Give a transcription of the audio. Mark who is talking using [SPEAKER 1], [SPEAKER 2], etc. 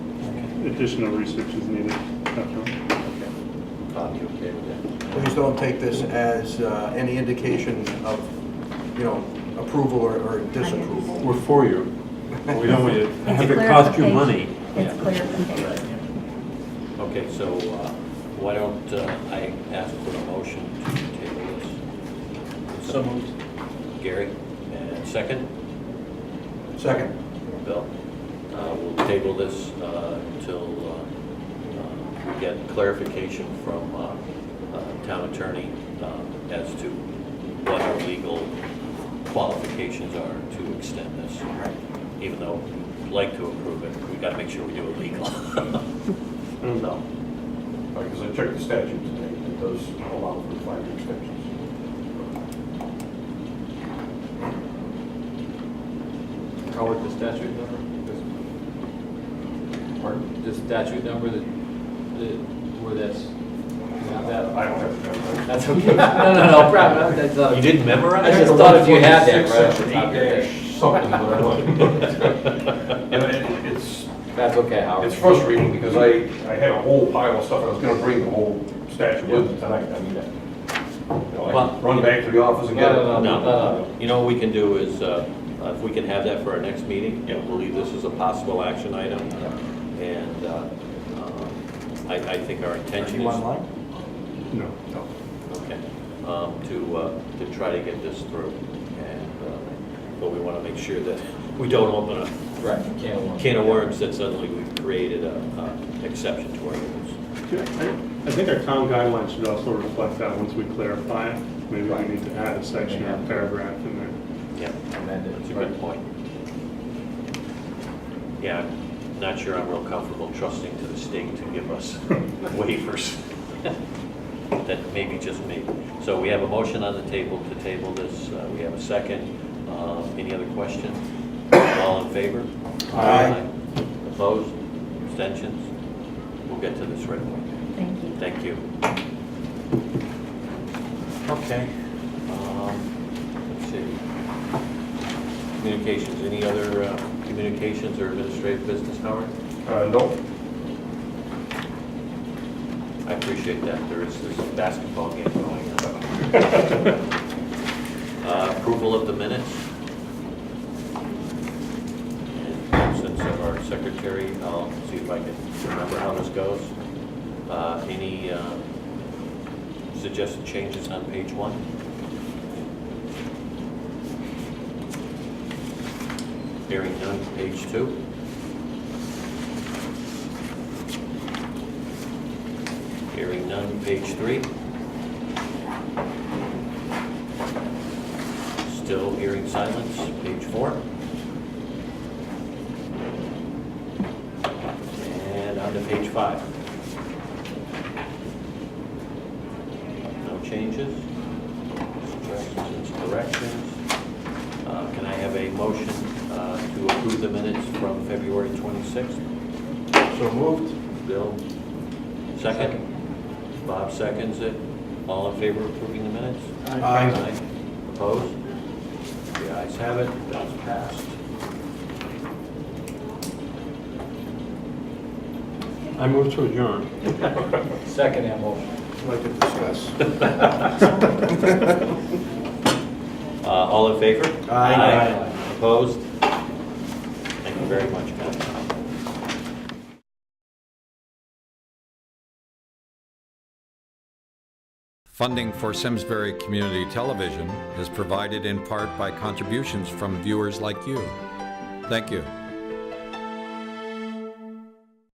[SPEAKER 1] additional research is needed. definitely.
[SPEAKER 2] Bob, you okay with that?
[SPEAKER 3] Please don't take this as uh, any indication of, you know, approval or- or disapproval.
[SPEAKER 4] We're for you. but We don't want you to
[SPEAKER 5] It's
[SPEAKER 4] have it cost you
[SPEAKER 5] clarification.
[SPEAKER 4] money.
[SPEAKER 5] It's
[SPEAKER 2] Right.
[SPEAKER 5] clarification.
[SPEAKER 2] Okay, so uh, why don't uh, I ask for a motion to table this? So moved. Gary, and second,
[SPEAKER 3] Second,
[SPEAKER 2] Bill. Uh, We'll table this uh, until uh, uh, we get clarification from uh, uh, town attorney uh, as to what our legal qualifications are to extend this. Even though we'd like to approve it, we gotta make sure we do it legal. So,
[SPEAKER 6] Because I checked the statute today, it does allow for five extensions.
[SPEAKER 7] Call it the statute number?
[SPEAKER 6] Pardon?
[SPEAKER 7] The statute number that, that, where that's, not that.
[SPEAKER 6] I don't have to have that.
[SPEAKER 7] That's okay. No, no, no, problem, that's, uh.
[SPEAKER 2] You didn't
[SPEAKER 7] I
[SPEAKER 2] memorize
[SPEAKER 7] just
[SPEAKER 2] it?
[SPEAKER 7] thought if you had that, right, off the
[SPEAKER 6] Section
[SPEAKER 7] top of your head.
[SPEAKER 6] eight dash something, but I don't. And it- It's,
[SPEAKER 7] That's okay, Howard.
[SPEAKER 6] it's frustrating because I, I had a whole pile of stuff, I was gonna bring the whole statute with me tonight, I mean, I- you know,
[SPEAKER 2] Well-
[SPEAKER 6] I run back to the office and get it.
[SPEAKER 7] No, no, no,
[SPEAKER 2] No. Uh, You know what we can do is, uh, if we can have that for our next meeting, I believe this is a possible action item. And uh, um, I, I think our intention
[SPEAKER 3] you
[SPEAKER 2] is.
[SPEAKER 3] online?
[SPEAKER 1] No.
[SPEAKER 2] Okay, um, to, uh, to try to get this through. And, uh, but we want to make sure that we don't open a
[SPEAKER 7] Right, can of worms.
[SPEAKER 2] can of worms that suddenly we've created a, a exception to our rules.
[SPEAKER 1] I think our town guidelines should also reflect that once we clarify it. Maybe we need to add a section or a paragraph in there.
[SPEAKER 2] Yeah,
[SPEAKER 7] Amended.
[SPEAKER 2] that's a good point. Yeah, I'm not sure I'm real comfortable trusting to the state to give us waivers. That may be just me. So we have a motion on the table to table this. Uh, We have a second. Uh, Any other questions? All in favor?
[SPEAKER 3] Aye.
[SPEAKER 2] Opposed? Abstentions? We'll get to this right away.
[SPEAKER 5] Thank you.
[SPEAKER 2] Thank you. Okay. um, Let's see. Communications, any other uh, communications or administrative business, Howard?
[SPEAKER 6] Uh, no,
[SPEAKER 2] I appreciate that, there is, there's a basketball game going on. Uh, Approval of the minutes. And absence of our secretary, I'll see if I can remember how this goes. Uh, Any uh, suggested changes on page one? Hearing none, page two. Hearing none, page three. Still hearing silence, page four. And on to page five. No changes, suggestions, corrections. Uh, Can I have a motion uh, to approve the minutes from February 26th?
[SPEAKER 3] So moved?
[SPEAKER 2] Bill, second? Bob seconds it. All in favor of approving the minutes?
[SPEAKER 3] Aye.
[SPEAKER 2] Opposed? The ayes have it, that's passed.
[SPEAKER 4] I move to adjourn.
[SPEAKER 7] Second that motion.
[SPEAKER 3] I'd like to discuss.
[SPEAKER 2] Uh, All in favor?
[SPEAKER 3] Aye.
[SPEAKER 2] Opposed? Thank you very much, guys.
[SPEAKER 8] Funding for Simsbury Community Television is provided in part by contributions from viewers like you. Thank you.